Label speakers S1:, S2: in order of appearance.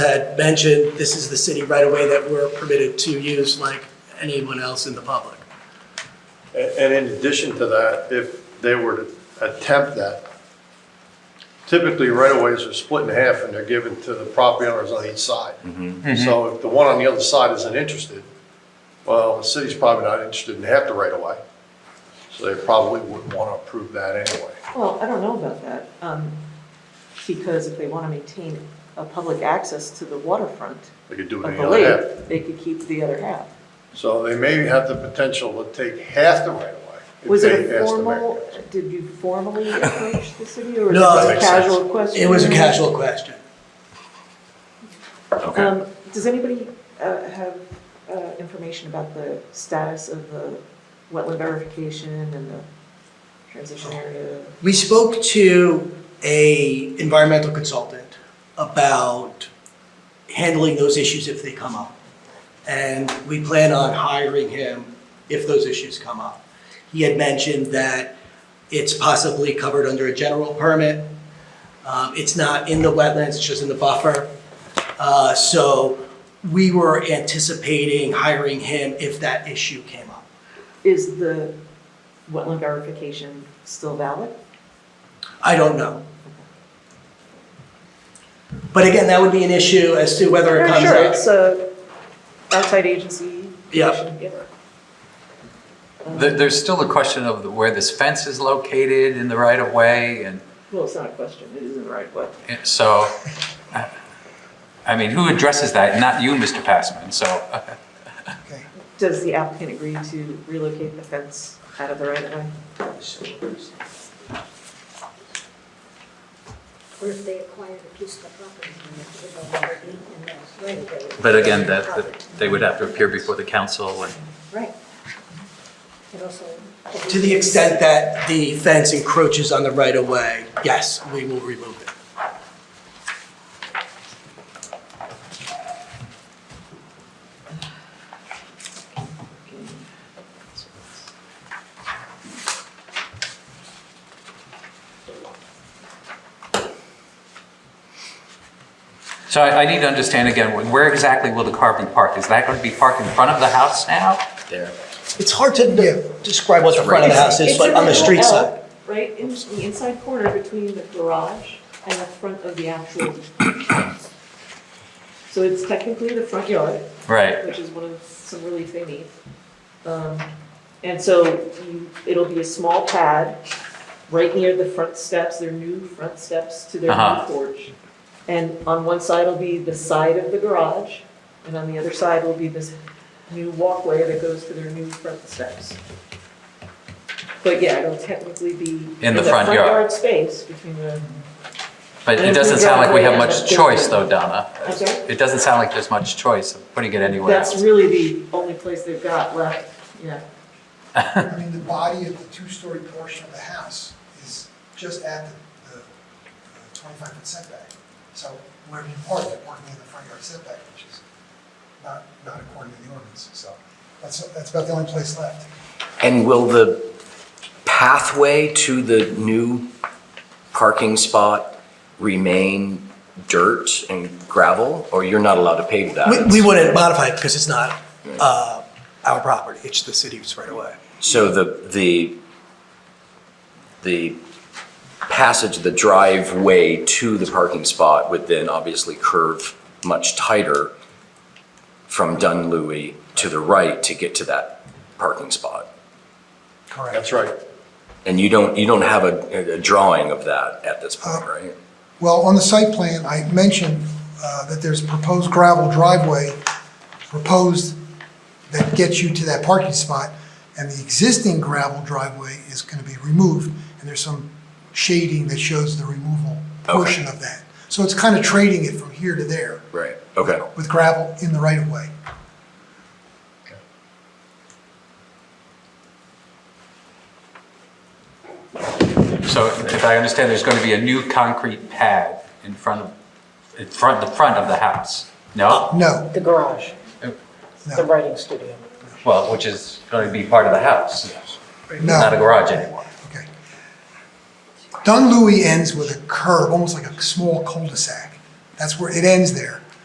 S1: had mentioned, this is the city right away that we're permitted to use like anyone else in the public.
S2: A- And in addition to that, if they were to attempt that, typically right-of-ways are split in half and they're given to the property owners on each side. So if the one on the other side isn't interested, well, the city's probably not interested in half the right-of-way. So they probably wouldn't want to approve that anyway.
S3: Well, I don't know about that, um, because if they want to maintain a public access to the waterfront
S2: They could do it
S3: of
S2: in
S3: the
S2: the other half.
S3: lake, they could keep the other half.
S2: So they may have the potential to take half the right-of-way. if
S3: Was it
S2: they
S3: a
S2: ask the
S3: formal,
S2: Americans.
S3: did you formally approach the city, or was
S1: No,
S3: it just
S1: that
S3: a
S1: makes
S2: sense.
S3: casual question?
S1: It was a casual question.
S4: Okay.
S3: Um, does anybody, uh, have, uh, information about the status of the wetland verification and the transition area?
S1: We spoke to a environmental consultant about handling those issues if they come up. And we plan on hiring him if those issues come up. He had mentioned that it's possibly covered under a general permit. Um, it's not in the wetlands, it's just in the buffer. Uh, so we were anticipating hiring him if that issue came up.
S3: Is the wetland verification still valid?
S1: I don't know. But again, that would be an issue as to whether it
S3: Yeah,
S1: comes
S3: Sure,
S1: up.
S3: it's a outside agency.
S1: Yep.
S3: Um,
S4: There, there's still the question of the- where this fence is located in the right of way and
S3: Well, it's not a question, it isn't right, but
S4: and so, I- I mean, who addresses that? Not you, Mr. Passman, so.
S3: does the applicant agree to relocate the fence out of the right of way?
S5: Or if they acquired a piece of the property and it would no longer be in the right of way.
S4: But again, that, that they would have to appear before the council and,
S5: Right. And also.
S1: To the extent that the fence encroaches on the right-of-way, yes, we will remove it.
S4: so I, I need to understand again, where exactly will the car be parked? Is that going to be parked in front of the house now? There.
S1: It's hard to de- describe what the front of the house is,
S3: It's
S1: but
S3: a
S1: on the
S3: little
S1: street
S3: L,
S1: side.
S3: Right, in the inside corner between the garage and the front of the actual house. So it's technically the front yard,
S4: Right,
S3: which is one of some relief they need. Um, And so you, it'll be a small pad right near the front steps, their new front steps to their new
S4: Uh-huh.
S3: porch. And on one side will be the side of the garage, and on the other side will be this new walkway that goes to their new front steps. But yeah, it'll technically be in the front
S4: yard.
S3: yard space between the,
S4: but
S3: And
S4: it
S3: if
S4: doesn't
S3: we
S4: sound
S3: drive
S4: like we have
S3: away,
S4: much
S3: that's-
S4: choice though, Donna.
S3: I'm sorry?
S4: It doesn't sound like there's much choice of putting it anywhere else.
S3: that's really the only place they've got left, yeah.
S6: I mean, the body of the two-story portion of the house is just at the, the twenty-five foot setback. So wherever you park, you're parking in the front yard setback, which is not, not according to the ordinance, so that's, that's about the only place left.
S7: And will the pathway to the new parking spot remain dirt and gravel? Or you're not allowed to pave that?
S1: We, we wouldn't modify it because it's not, uh, our property, it's the city's right-of-way.
S7: So the, the, the passage, the driveway to the parking spot would then obviously curve much tighter from Dunleavy to the right to get to that parking spot?
S1: Correct.
S2: That's right.
S7: And you don't, you don't have a, a drawing of that at this point,
S6: Uh,
S7: right?
S6: Well, on the site plan, I mentioned uh, that there's proposed gravel driveway proposed that gets you to that parking spot, and the existing gravel driveway is going to be removed, and there's some shading that shows the removal portion of that. So it's kind of trading it from here to there
S7: Right, okay.
S6: with gravel in the right-of-way.
S4: So if I understand, there's going to be a new concrete pad in front of, in front, the front of the house? No?
S6: No,
S8: The garage, the
S6: no,
S8: writing studio.
S4: Well, which is going to be part of the house? Not a
S6: no,
S4: garage anymore?
S6: okay. Dunleavy ends with a curve, almost like a small cul-de-sac. That's where, it ends there.